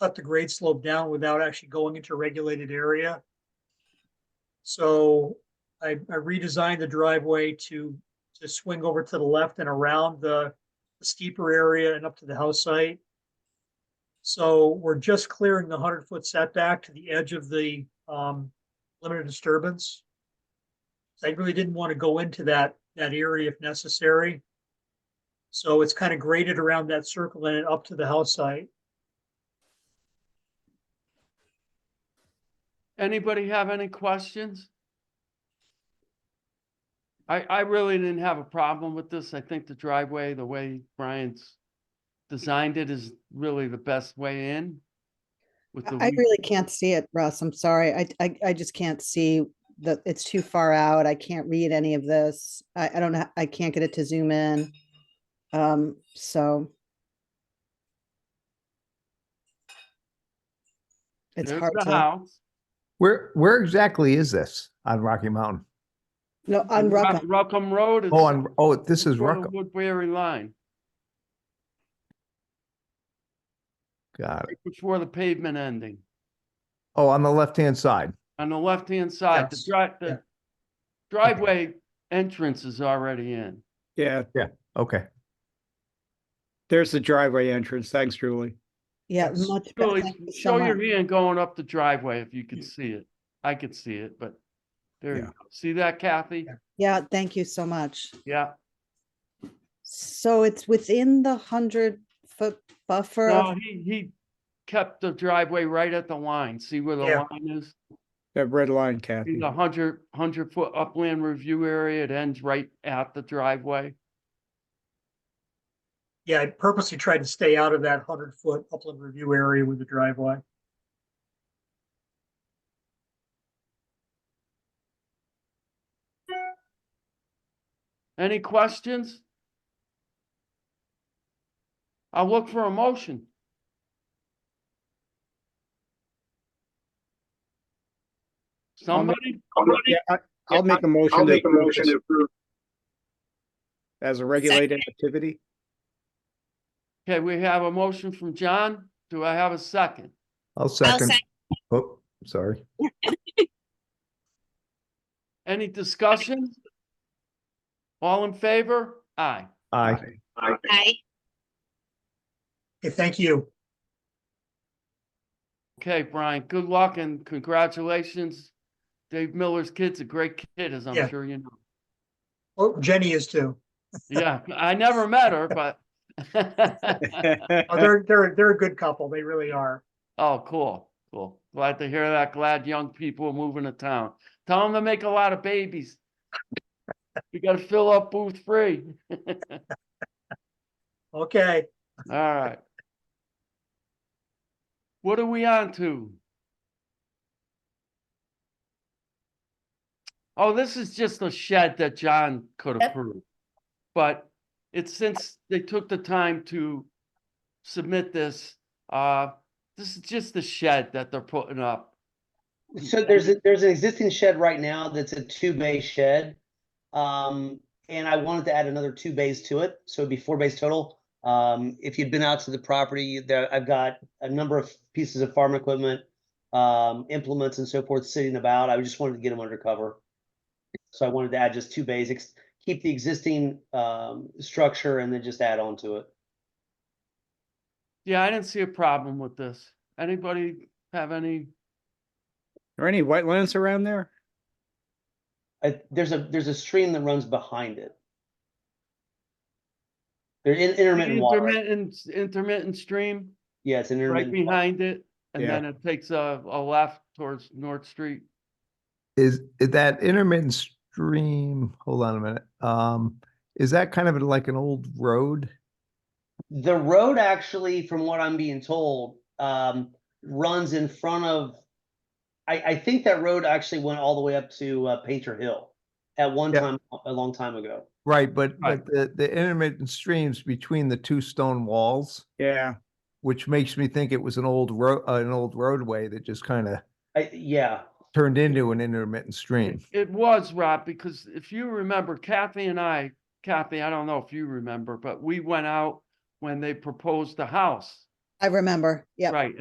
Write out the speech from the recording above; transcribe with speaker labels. Speaker 1: cut the grade slope down without actually going into a regulated area. So I, I redesigned the driveway to, to swing over to the left and around the steeper area and up to the house site. So we're just clearing the hundred foot setback to the edge of the, um, limited disturbance. I really didn't want to go into that, that area if necessary. So it's kind of graded around that circle and up to the house site.
Speaker 2: Anybody have any questions? I, I really didn't have a problem with this. I think the driveway, the way Brian's designed it is really the best way in. With the,
Speaker 3: I I
Speaker 2: weed-
Speaker 3: really can't see it, Russ. I'm sorry. I, I, I just can't see the, it's too far out. I can't read any of this. I, I don't know. I can't get it to zoom in. Um, so. It's
Speaker 2: there's
Speaker 3: hard
Speaker 2: the
Speaker 3: to,
Speaker 2: house.
Speaker 4: Where, where exactly is this on Rocky Mountain?
Speaker 3: no, on
Speaker 2: Ru-
Speaker 3: Rucka,
Speaker 2: Ruckham Road.
Speaker 4: Oh,
Speaker 2: it's
Speaker 4: on, oh, this is
Speaker 2: sort of
Speaker 4: Ruckham.
Speaker 2: Woodbury line,
Speaker 4: Got it.
Speaker 2: right before the pavement ending.
Speaker 4: Oh, on the left-hand side.
Speaker 2: On the left-hand side, the
Speaker 1: Yes,
Speaker 2: drive,
Speaker 1: yeah.
Speaker 2: the driveway entrance is already in.
Speaker 5: Yeah,
Speaker 4: Okay.
Speaker 5: there's the driveway entrance. Thanks, Julie.
Speaker 3: yeah,
Speaker 1: Yes.
Speaker 3: much better.
Speaker 2: Really,
Speaker 3: Thank you so
Speaker 2: show
Speaker 3: much.
Speaker 2: your hand going up the driveway if you could see it. I could see it, but there you
Speaker 5: Yeah.
Speaker 2: go. See that Kathy?
Speaker 1: Yeah.
Speaker 3: Yeah, thank you so much.
Speaker 2: Yeah.
Speaker 3: So it's within the hundred foot buffer.
Speaker 2: No,
Speaker 3: of-
Speaker 2: he, he kept the driveway right at the line. See where the
Speaker 1: Yeah.
Speaker 2: line is?
Speaker 5: That red line,
Speaker 2: See
Speaker 5: Kathy.
Speaker 2: the hundred, hundred foot upland review area. It ends right at the driveway.
Speaker 1: Yeah, I purposely tried to stay out of that hundred foot upland review area with the driveway.
Speaker 2: Any questions? I'll look for a motion. Somebody?
Speaker 5: Yeah, I- I'll make a motion to approve this as a regulated activity.
Speaker 2: Okay, we have a motion from John. Do I have a second?
Speaker 4: I'll second. Oh, sorry.
Speaker 2: Any discussion? All in favor? Aye.
Speaker 4: Aye.
Speaker 6: Aye.
Speaker 1: Okay, thank you.
Speaker 2: Okay, Brian, good luck and congratulations. Dave Miller's kid's a great kid, as I'm
Speaker 1: Yeah.
Speaker 2: sure you know.
Speaker 1: Oh, Jenny is too.
Speaker 2: Yeah, I never met her, but.
Speaker 1: Oh, They're, they're, they're a good couple. They really are.
Speaker 2: Oh, cool, cool. Glad to hear that. Glad young people are moving to town. Tell them to make a lot of babies. We gotta fill up booth three.
Speaker 1: Okay,
Speaker 2: All right. What are we on to? Oh, this is just a shed that John could approve. But it's since they took the time to submit this, uh, this is just the shed that they're putting up.
Speaker 7: So there's, a- there's an existing shed right now that's a two bay shed. Um, and I wanted to add another two bays to it, so it'd be four bays total. Um, if you'd been out to the property, there, I've got a number of pieces of farm equipment, um, implements and so forth sitting about. I just wanted to get them under cover. So I wanted to add just two bays, ex- keep the existing, um, structure and then just add on to it.
Speaker 2: Yeah, I didn't see a problem with this. Anybody have any?
Speaker 5: Are any wetlands around there?
Speaker 7: I, there's a, there's a stream that runs behind it. There's in- intermittent water.
Speaker 2: Intermittent, intermittent stream
Speaker 7: Yeah, it's an
Speaker 2: right
Speaker 7: intermittent. fire.
Speaker 2: behind it, and
Speaker 5: Yeah.
Speaker 2: then it takes a, a left towards North Street.
Speaker 4: Is is that intermittent stream, hold on a minute. Um, is that kind of like an old road?
Speaker 7: The road actually, from what I'm being told, um, runs in front of. I, I think that road actually went all the way up to uh, Painter Hill at one
Speaker 4: Yeah.
Speaker 7: time, a long time ago.
Speaker 4: Right, but,
Speaker 2: Right.
Speaker 4: but the, the intermittent streams between the two stone walls,
Speaker 5: Yeah,
Speaker 4: which makes me think it was an old road, an old roadway that just kind of
Speaker 7: I, yeah,
Speaker 4: turned into an intermittent stream.
Speaker 2: It was, Rob, because if you remember Kathy and I, Kathy, I don't know if you remember, but we went out when they proposed the house,
Speaker 3: I remember. Yeah.
Speaker 2: right?